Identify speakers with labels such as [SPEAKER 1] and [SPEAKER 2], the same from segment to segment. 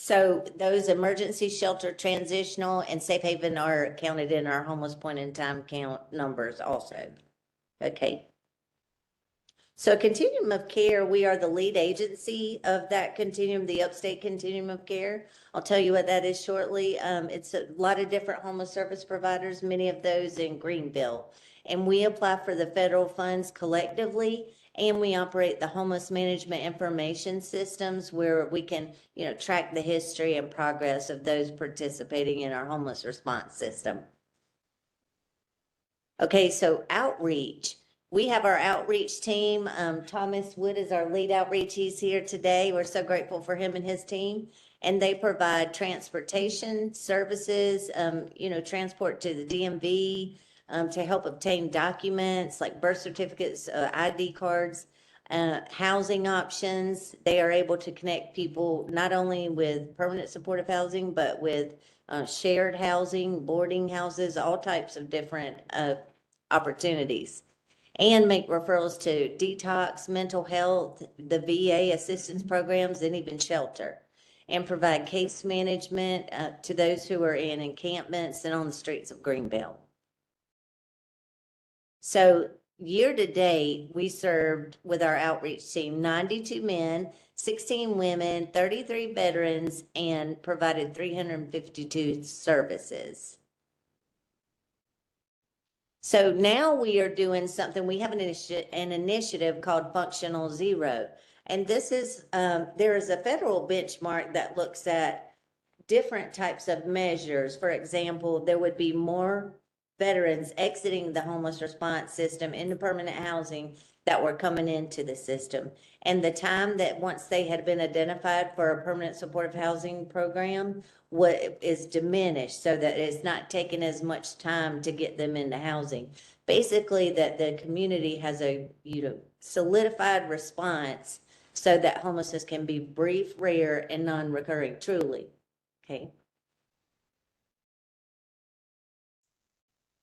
[SPEAKER 1] So those emergency shelter, transitional and safe haven are counted in our homeless point in time count numbers also. Okay. So continuum of care, we are the lead agency of that continuum, the upstate continuum of care. I'll tell you what that is shortly. Um, it's a lot of different homeless service providers, many of those in Greenville. And we apply for the federal funds collectively and we operate the homeless management information systems where we can, you know, track the history and progress of those participating in our homeless response system. Okay, so outreach. We have our outreach team. Um, Thomas Wood is our lead outreach. He's here today. We're so grateful for him and his team. And they provide transportation services, um, you know, transport to the DMV, um, to help obtain documents like birth certificates, uh, ID cards, uh, housing options. They are able to connect people not only with permanent supportive housing, but with uh, shared housing, boarding houses, all types of different uh, opportunities. And make referrals to detox, mental health, the VA assistance programs, and even shelter. And provide case management uh, to those who are in encampments and on the streets of Greenbelt. So year to date, we served with our outreach team ninety-two men, sixteen women, thirty-three veterans, and provided three hundred and fifty-two services. So now we are doing something, we have an initiative, an initiative called Functional Zero. And this is, um, there is a federal benchmark that looks at different types of measures. For example, there would be more veterans exiting the homeless response system into permanent housing that were coming into the system. And the time that once they had been identified for a permanent supportive housing program what is diminished so that it's not taking as much time to get them into housing. Basically, that the community has a, you know, solidified response so that homelessness can be brief, rare, and non-recurring truly. Okay?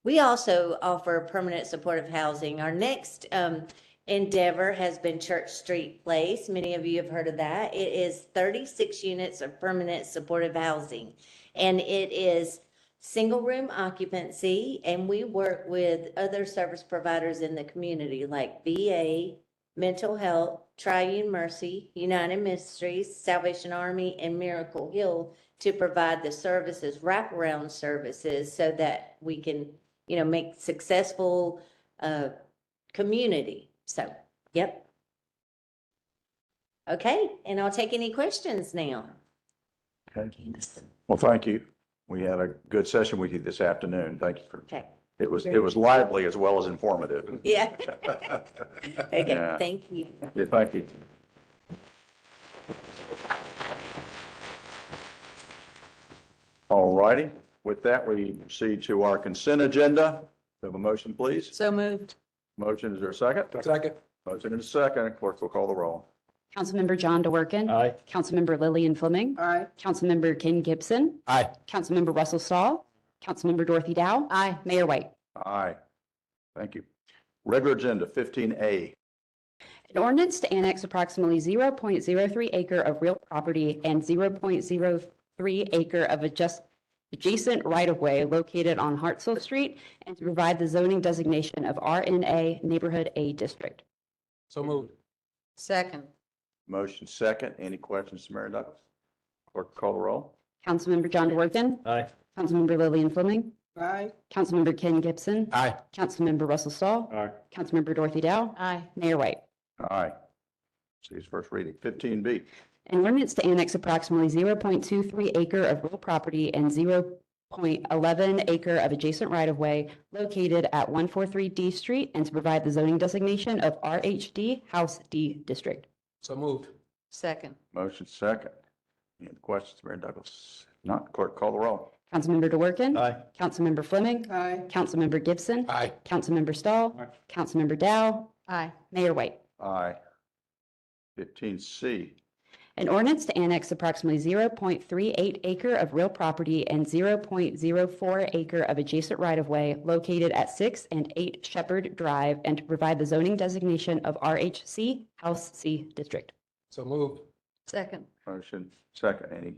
[SPEAKER 1] We also offer permanent supportive housing. Our next um, endeavor has been Church Street Place. Many of you have heard of that. It is 36 units of permanent supportive housing, and it is single room occupancy. And we work with other service providers in the community like VA, Mental Health, Triune Mercy, United Ministries, Salvation Army, and Miracle Hill to provide the services, wraparound services, so that we can, you know, make successful uh, community. So, yep. Okay, and I'll take any questions now.
[SPEAKER 2] Okay. Well, thank you. We had a good session with you this afternoon. Thank you for,
[SPEAKER 1] Okay,
[SPEAKER 2] it was, it was lively as well as informative.
[SPEAKER 1] yeah, okay,
[SPEAKER 2] Yeah.
[SPEAKER 1] thank you.
[SPEAKER 2] Yeah, Thank you. All righty. With that, we proceed to our consent agenda. Have a motion, please.
[SPEAKER 3] So moved.
[SPEAKER 2] Motion, is there a second?
[SPEAKER 4] Second.
[SPEAKER 2] Motion and a second. Clerk will call the roll.
[SPEAKER 5] Councilmember John DeWorke.
[SPEAKER 4] Aye.
[SPEAKER 5] Councilmember Lillian Fleming.
[SPEAKER 3] Aye.
[SPEAKER 5] Councilmember Ken Gibson.
[SPEAKER 4] Aye.
[SPEAKER 5] Councilmember Russell Stahl. Councilmember Dorothy Dow. Aye. Mayor White.
[SPEAKER 2] Aye. Thank you. Regular agenda fifteen A.
[SPEAKER 5] An ordinance to annex approximately 0.03 acre of real property and 0.03 acre of adjust- adjacent right-of-way located on Hartsel Street and to provide the zoning designation of RNA Neighborhood A District.
[SPEAKER 4] So moved.
[SPEAKER 3] Second.
[SPEAKER 2] Motion second. Any questions, to Mary Douglas? Clerk call the roll.
[SPEAKER 5] Councilmember John DeWorke.
[SPEAKER 4] Aye.
[SPEAKER 5] Councilmember Lillian Fleming.
[SPEAKER 3] Aye.
[SPEAKER 5] Councilmember Ken Gibson.
[SPEAKER 4] Aye.
[SPEAKER 5] Councilmember Russell Stahl.
[SPEAKER 4] Aye.
[SPEAKER 5] Councilmember Dorothy Dow.
[SPEAKER 3] Aye.
[SPEAKER 5] Mayor White.
[SPEAKER 2] Aye. See his first reading. Fifteen B.
[SPEAKER 5] An ordinance to annex approximately zero point two three acre of rural property and zero point eleven acre of adjacent right-of-way located at one four three D Street and to provide the zoning designation of RHD House D District.
[SPEAKER 4] So moved.
[SPEAKER 3] Second.
[SPEAKER 2] Motion second. Any other questions, Mary Douglas? If Not, clerk call the roll.
[SPEAKER 5] Councilmember DeWorke.
[SPEAKER 4] Aye.
[SPEAKER 5] Councilmember Fleming.
[SPEAKER 3] Aye.
[SPEAKER 5] Councilmember Gibson.
[SPEAKER 4] Aye.
[SPEAKER 5] Councilmember Stahl.
[SPEAKER 4] Aye.
[SPEAKER 5] Councilmember Dow.
[SPEAKER 3] Aye.
[SPEAKER 5] Mayor White.
[SPEAKER 2] Aye. Fifteen C.
[SPEAKER 5] An ordinance to annex approximately 0.38 acre of real property and 0.04 acre of adjacent right-of-way located at 6 and 8 Shepherd Drive and to provide the zoning designation of RHC House C District.
[SPEAKER 4] So moved.
[SPEAKER 3] Second.
[SPEAKER 2] Motion second. Any